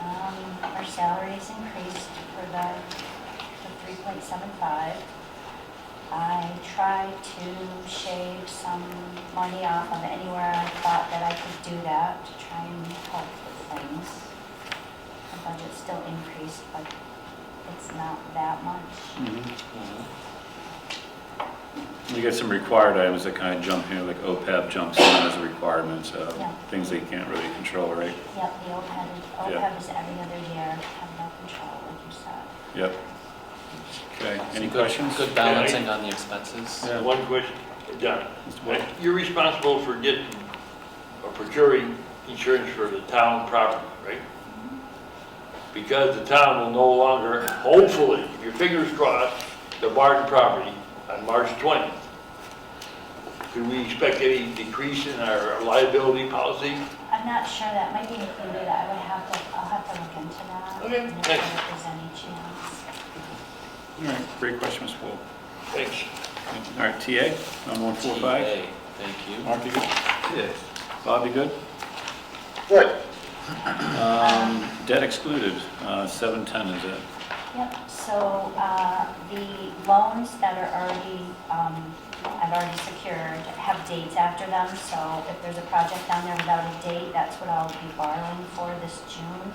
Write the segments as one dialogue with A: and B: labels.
A: Um, salaries increased for the, the 3.75. I tried to shave some money off of anywhere I thought that I could do that to try and help with things. The budget still increased, but it's not that much.
B: You get some required items that kind of jump here, like OPEB jumps in as a requirement, so
A: Yeah.
B: things that you can't really control, right?
A: Yep, the OPEB,
B: Yeah.
A: OPEB is every other year, have no control, like you said.
B: Yep. Okay, any
C: Good-
B: questions?
C: Good balancing on the expenses.
B: Yeah.
D: Uh, One question, Don,
B: Mr. Boyle?
D: you're responsible for getting or procuring insurance for the town property, right?
B: Mm-hmm.
D: Because the town will no longer, hopefully, if your fingers crossed, the Barton property on March 20th. Could we expect any decrease in our liability policy?
A: I'm not sure, that might be included, I would have to, I'll have to look into that.
D: Okay,
A: and
D: thanks.
A: If there's any chance.
B: All right, great question, Mr. Wolf.
D: Thanks.
B: All right, TA, number one four five.
C: TA, Thank you.
B: Mark, you good?
E: Yes.
B: Bob, you good?
E: Good.
B: Um, Debt excluded, uh, seven ten is it?
A: Yep, so, uh, the loans that are already, um, I've already secured have dates after them, so if there's a project down there without a date, that's what I'll be borrowing for this June.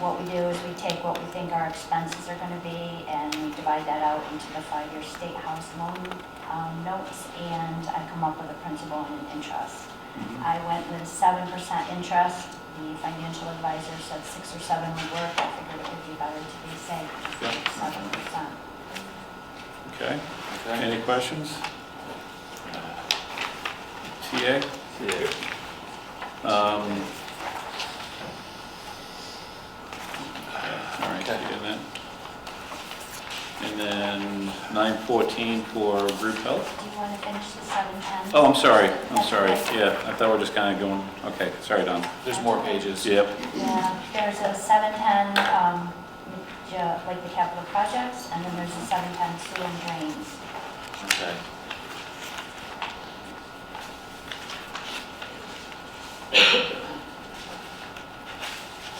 A: What we do is we take what we think our expenses are gonna be, and we divide that out into the five-year state house loan, um, notes, and I come up with a principal and an interest.
C: Mm-hmm.
A: I went with seven percent interest, the financial advisor said six or seven would work, I figured it would be better to be safe, seven percent.
B: Okay,
C: Okay.
B: any questions? TA?
E: Yes.
B: Um, All right,
C: Okay.
B: and then, and then nine fourteen for group health?
A: Do you want to finish the seven ten?
B: Oh, I'm sorry, I'm sorry, yeah, I thought we we're just kind of going, okay, sorry, Don.
C: There's more pages.
B: Yep,
A: Yeah, there's a seven ten, um, ju- like the capital projects, and then there's a seven ten sewer and drains.
C: Okay.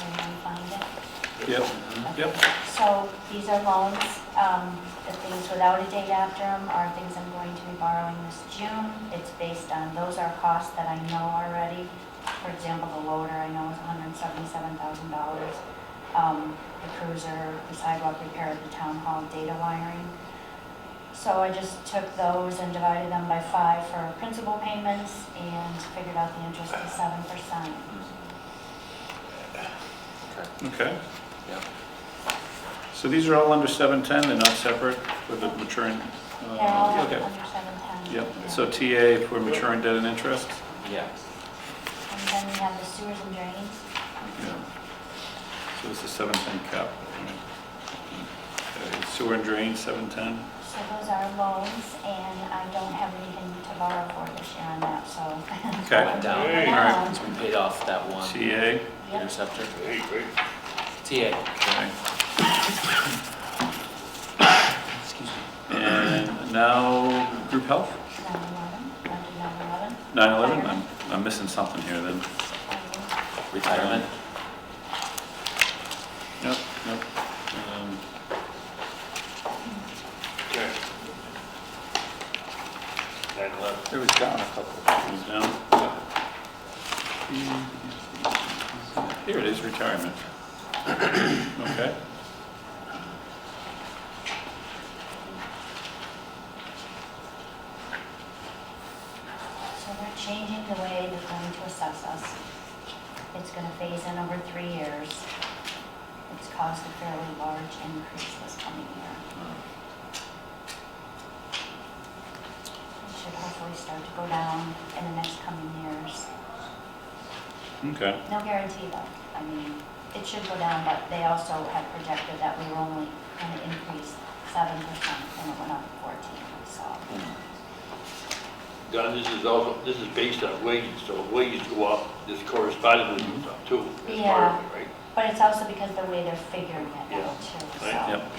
A: Can you find it?
B: yep, yep,
A: So these are loans, um, the things without a date after them are things I'm going to be borrowing this June. It's based on, those are costs that I know already. For example, the loader I know is hundred and seventy-seven thousand dollars. Um, the cruiser, the sidewalk repair, the town hall data wiring. So I just took those and divided them by five for principal payments and figured out the interest is seven percent.
C: Okay.
B: okay.
C: Yep.
B: So these are all under seven ten, they're not separate for the maturing? uh,
A: They're all under
B: Okay,
A: seven ten.
B: yep, so TA for maturing debt and interest?
C: Yeah.
A: And then we have the sewers and drains.
B: Yeah. So it's the seven ten cap. Okay, Sewer and drain, seven ten.
A: So those are loans, and I don't have anything to borrow for this year on that, so. Um,
B: Okay.
C: Went down.
D: Hey.
C: All right. Since we paid off that one
B: TA,
A: Yep.
C: interceptor.
D: Hey, great.
C: TA.
B: okay.
C: Excuse me.
B: And now, group health,
A: 9/11, under 9/11.
B: nine eleven, I'm, I'm missing something here then.
C: Retirement.
B: Yep, yep. Um,
D: Okay. Nine eleven.
E: It was down a couple.
B: Comes down. Here it is, retirement. Okay.
A: So they're changing the way they're going to assess us. It's gonna phase in over three years. It's caused a fairly large increase this coming year. It should hopefully start to go down in the next coming years.
B: Okay.
A: No guarantee though. I mean, it should go down, but they also had projected that we were only going to increase seven percent and it went up fourteen, so.
D: Don, this is also, this is based on wages, so if wages go up, this correspondingly goes up too. That's part of it, Right?
A: But it's also because the way they're figuring it
D: Yeah.
A: out too,
D: Right.
A: so.
B: Yep.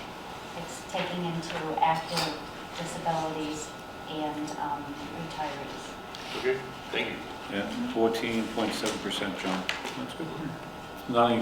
A: It's taking into active disabilities and um, retirees.
D: Okay, thank you.
B: Yeah, fourteen point seven percent jump. That's good. Not